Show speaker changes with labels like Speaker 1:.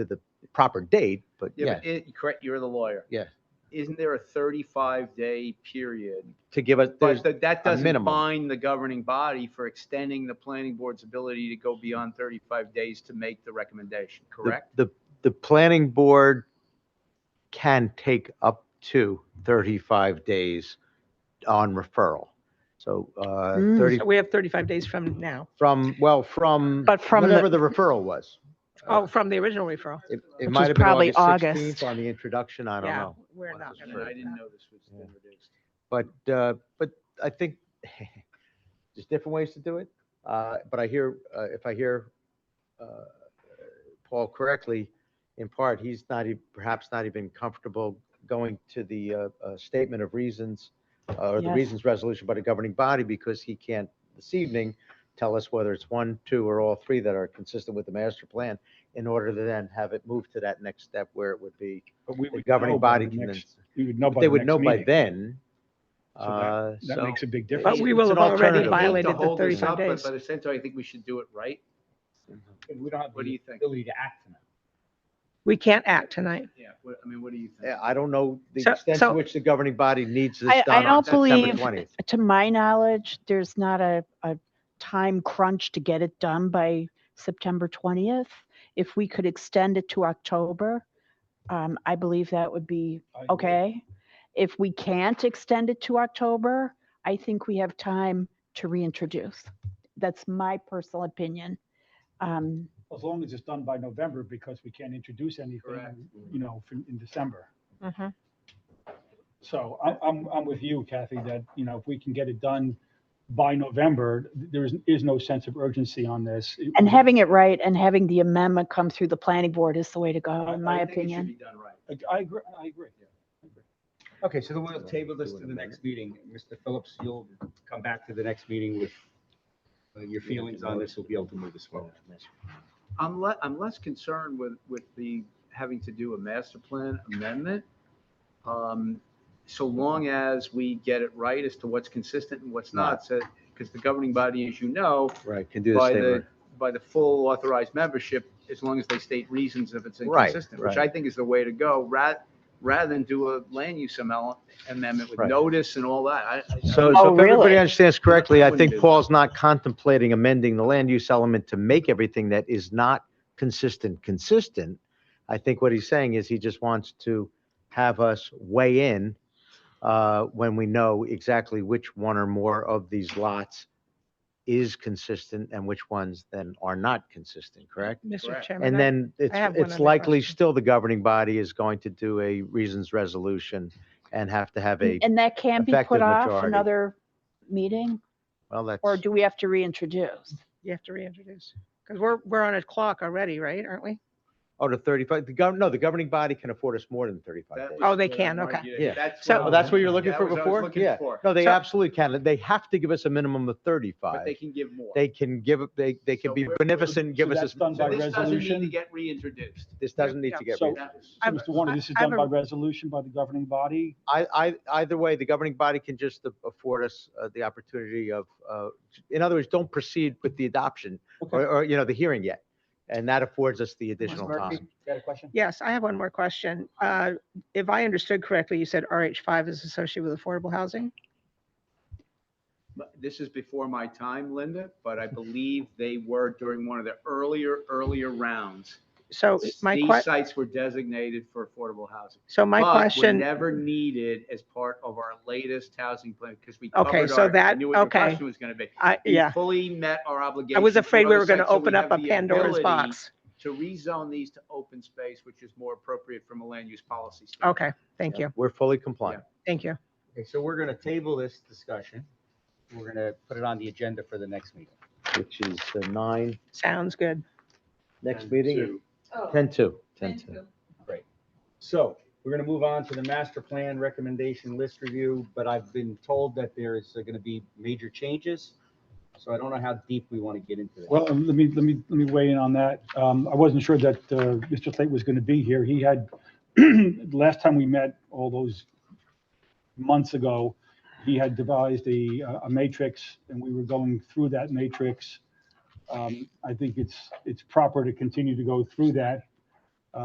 Speaker 1: to the proper date, but
Speaker 2: Yeah,
Speaker 1: yeah,
Speaker 2: but it, correct, you're the lawyer.
Speaker 1: Yeah.
Speaker 2: Isn't there a thirty-five day period?
Speaker 1: to give us, there's,
Speaker 2: But that, that doesn't
Speaker 1: minimum.
Speaker 2: bind the governing body for extending the planning board's ability to go beyond thirty-five days to make the recommendation,
Speaker 1: the,
Speaker 2: correct?
Speaker 1: the, the planning board can take up to 35 days on referral. So, uh,
Speaker 3: Mm,
Speaker 1: 30,
Speaker 3: so We have 35 days from now.
Speaker 1: from, well, from.
Speaker 3: But from the-
Speaker 1: Whatever the referral was.
Speaker 3: Oh, from the original referral.
Speaker 1: It, it
Speaker 4: Which
Speaker 1: might
Speaker 4: was
Speaker 1: have been
Speaker 4: probably
Speaker 1: August 16th
Speaker 4: August.
Speaker 1: on the introduction, I don't
Speaker 3: Yeah,
Speaker 1: know.
Speaker 3: We're not.
Speaker 1: the
Speaker 2: I
Speaker 3: gonna
Speaker 2: mean,
Speaker 3: do
Speaker 2: I didn't
Speaker 3: that.
Speaker 2: know this was
Speaker 1: Yeah.
Speaker 2: been reduced.
Speaker 1: But, uh, but I think there's different ways to do it. Uh, But I hear, uh, if I hear uh, Paul correctly, in part, he's not, e- perhaps not even comfortable going to the uh, uh, statement of reasons uh, or the
Speaker 4: Yes.
Speaker 1: reasons resolution by the governing body because he can't this evening tell us whether it's one, two, or all three that are consistent with the master plan in order to then have it move to that next step where it would be
Speaker 5: But we
Speaker 1: the
Speaker 5: would know
Speaker 1: governing
Speaker 5: by
Speaker 1: body
Speaker 5: the
Speaker 1: can then
Speaker 5: next, we would know
Speaker 1: but
Speaker 5: by
Speaker 1: they
Speaker 5: the
Speaker 1: would
Speaker 5: next
Speaker 1: know by
Speaker 5: meeting.
Speaker 1: then.
Speaker 5: So
Speaker 1: Uh,
Speaker 5: That
Speaker 1: so-
Speaker 5: makes a big
Speaker 3: But
Speaker 5: difference.
Speaker 3: we
Speaker 2: It's
Speaker 3: will
Speaker 2: an
Speaker 3: have already
Speaker 2: alternative.
Speaker 3: violated
Speaker 2: To
Speaker 3: the
Speaker 2: hold this
Speaker 3: 35
Speaker 2: up, but-
Speaker 3: days.
Speaker 2: But at the same time, I think we should do it right.
Speaker 5: We don't have
Speaker 2: What do you
Speaker 5: the
Speaker 2: think?
Speaker 5: ability to act tonight.
Speaker 3: We can't act tonight.
Speaker 2: Yeah, what, I mean, what do you think?
Speaker 1: yeah, I don't know the
Speaker 3: So-
Speaker 1: extent to
Speaker 3: so-
Speaker 1: which the governing body needs this
Speaker 4: I, I
Speaker 1: done on
Speaker 4: don't
Speaker 1: September
Speaker 4: believe,
Speaker 1: twentieth.
Speaker 4: to my knowledge, there's not a, a time crunch to get it done by September 20th. If we could extend it to October, um, I believe that would be
Speaker 5: I agree.
Speaker 4: okay. If we can't extend it to October, I think we have time to reintroduce. That's my personal opinion. Um,
Speaker 5: As long as it's done by November, because we can't introduce
Speaker 2: Correct.
Speaker 5: anything, you know, for- in December.
Speaker 3: Mm-hmm.
Speaker 5: So I'm, I'm, I'm with you, Kathy, that, you know, if we can get it done by November, there is, is no sense of urgency on this. It-
Speaker 4: And having it right and having the amendment come through the planning board is the way to
Speaker 5: I-
Speaker 4: go, in
Speaker 2: I
Speaker 4: my
Speaker 2: think it should
Speaker 4: opinion.
Speaker 2: be done right.
Speaker 5: I agree, I agree.
Speaker 6: Okay, so then we'll table this
Speaker 1: Do it
Speaker 6: to
Speaker 1: in
Speaker 6: the
Speaker 1: a
Speaker 6: next meeting. Mr. Phillips, you'll come back to the next meeting with uh, your feelings on this. We'll be able to move this forward.
Speaker 2: I'm le, I'm less concerned with, with the, having to do a master plan amendment. Um, so long as we get it right as to what's consistent and what's not, so, because the governing body, as you know,
Speaker 1: Right, can do the
Speaker 2: by
Speaker 1: statement.
Speaker 2: the, by the full authorized membership, as long as they state reasons if it's
Speaker 1: Right,
Speaker 2: inconsistent, which
Speaker 1: right.
Speaker 2: I think is the way to go, ra, rather than do a land use amel- amendment with
Speaker 1: Right.
Speaker 2: notice and all that. I- I-
Speaker 1: So,
Speaker 4: Oh,
Speaker 1: so if everybody
Speaker 4: really?
Speaker 1: understands correctly,
Speaker 2: I
Speaker 1: I
Speaker 2: wouldn't do
Speaker 1: think
Speaker 2: that.
Speaker 1: Paul's not contemplating amending the land use element to make everything that is not consistent, consistent. I think what he's saying is he just wants to have us weigh in uh, when we know exactly which one or more of these lots is consistent and which ones then are not consistent, correct?
Speaker 3: Mr.
Speaker 2: Correct.
Speaker 3: Chairman,
Speaker 1: And
Speaker 3: I-
Speaker 1: then it's,
Speaker 3: have one
Speaker 1: it's
Speaker 3: other
Speaker 1: likely
Speaker 3: question.
Speaker 1: still the governing body is going to do a reasons resolution and have to have a,
Speaker 4: And that can be
Speaker 1: effective
Speaker 4: put off
Speaker 1: majority.
Speaker 4: another meeting,
Speaker 1: well, that's.
Speaker 4: or do we have to reintroduce?
Speaker 3: you have to reintroduce. Because we're, we're on a clock already, right? Aren't we?
Speaker 1: Oh, to 35, the gov, no, the governing body can afford us more than 35
Speaker 2: that
Speaker 1: days.
Speaker 2: was
Speaker 3: Oh, they
Speaker 2: what I
Speaker 3: can,
Speaker 2: wanted
Speaker 3: okay.
Speaker 2: you to-
Speaker 1: Yeah.
Speaker 2: That's
Speaker 3: So-
Speaker 2: I
Speaker 1: Oh,
Speaker 2: was-
Speaker 1: that's what you were looking
Speaker 2: that
Speaker 1: for
Speaker 2: was what I was
Speaker 1: before?
Speaker 2: looking
Speaker 1: Yeah.
Speaker 2: for.
Speaker 1: No, they
Speaker 3: So-
Speaker 1: absolutely can. They have to give us a minimum of
Speaker 2: But they
Speaker 1: 35.
Speaker 2: can give more.
Speaker 1: They can give, they, they can
Speaker 2: So
Speaker 1: be
Speaker 2: we're-
Speaker 1: beneficent, and give
Speaker 5: so
Speaker 1: us,
Speaker 5: that's
Speaker 1: this-
Speaker 5: done
Speaker 2: So
Speaker 5: by
Speaker 2: this doesn't need to
Speaker 5: resolution?
Speaker 2: get reintroduced.
Speaker 1: this doesn't need to get,
Speaker 5: So-
Speaker 1: rid of.
Speaker 5: So,
Speaker 2: That-
Speaker 5: Mr. Warner, this is
Speaker 3: I-
Speaker 5: done
Speaker 3: I-
Speaker 5: by resolution by the governing body?
Speaker 1: I, I, either way, the governing body can just afford us uh, the opportunity of, uh, in other words, don't proceed with the adoption or, or, you know, the hearing yet. And that affords us the additional
Speaker 5: Murphy?
Speaker 1: time.
Speaker 5: Got a question?
Speaker 3: Yes, I have one more question. Uh, If I understood correctly, you said RH5 is associated with affordable housing?
Speaker 2: But This is before my time, Linda, but I believe they were during one of the earlier, earlier rounds.
Speaker 3: So Oh, my
Speaker 2: These
Speaker 3: que,
Speaker 2: sites were designated for affordable housing.
Speaker 3: so my
Speaker 2: But were
Speaker 3: question,
Speaker 2: never needed as part of our latest housing plan because we covered
Speaker 3: Okay,
Speaker 2: our.
Speaker 3: so that-
Speaker 2: I knew what your
Speaker 3: okay.
Speaker 2: question was going to be.
Speaker 3: I,
Speaker 2: We
Speaker 3: yeah,
Speaker 2: Fully met our obligation.
Speaker 3: I was afraid we
Speaker 2: other
Speaker 3: were going to
Speaker 2: sites, so we
Speaker 3: open up
Speaker 2: have
Speaker 3: a
Speaker 2: the
Speaker 3: Pandora's
Speaker 2: ability
Speaker 3: box.
Speaker 2: To rezone these to open space, which is more appropriate from a land use policy standpoint.
Speaker 3: Okay, thank you,
Speaker 1: We're fully compliant.
Speaker 3: thank you.
Speaker 6: Okay, so we're going to table this discussion. We're going to put it on the agenda for the next meeting.
Speaker 1: Which is the nine,
Speaker 3: Sounds good.
Speaker 1: next
Speaker 6: And
Speaker 1: meeting,
Speaker 6: two.
Speaker 1: 10-2, 10-2.
Speaker 6: So we're going to move on to the master plan recommendation list review, but I've been told that there is going to be major changes. So I don't know how deep we want to get into this.
Speaker 5: Well, um, let me, let me, let me weigh in on that. Um, I wasn't sure that, uh, Mr. Slate was going to be here. He had, last time we met, all those months ago, he had devised a, uh, a matrix and we were going through that matrix. Um, I think it's, it's proper to continue to go through that.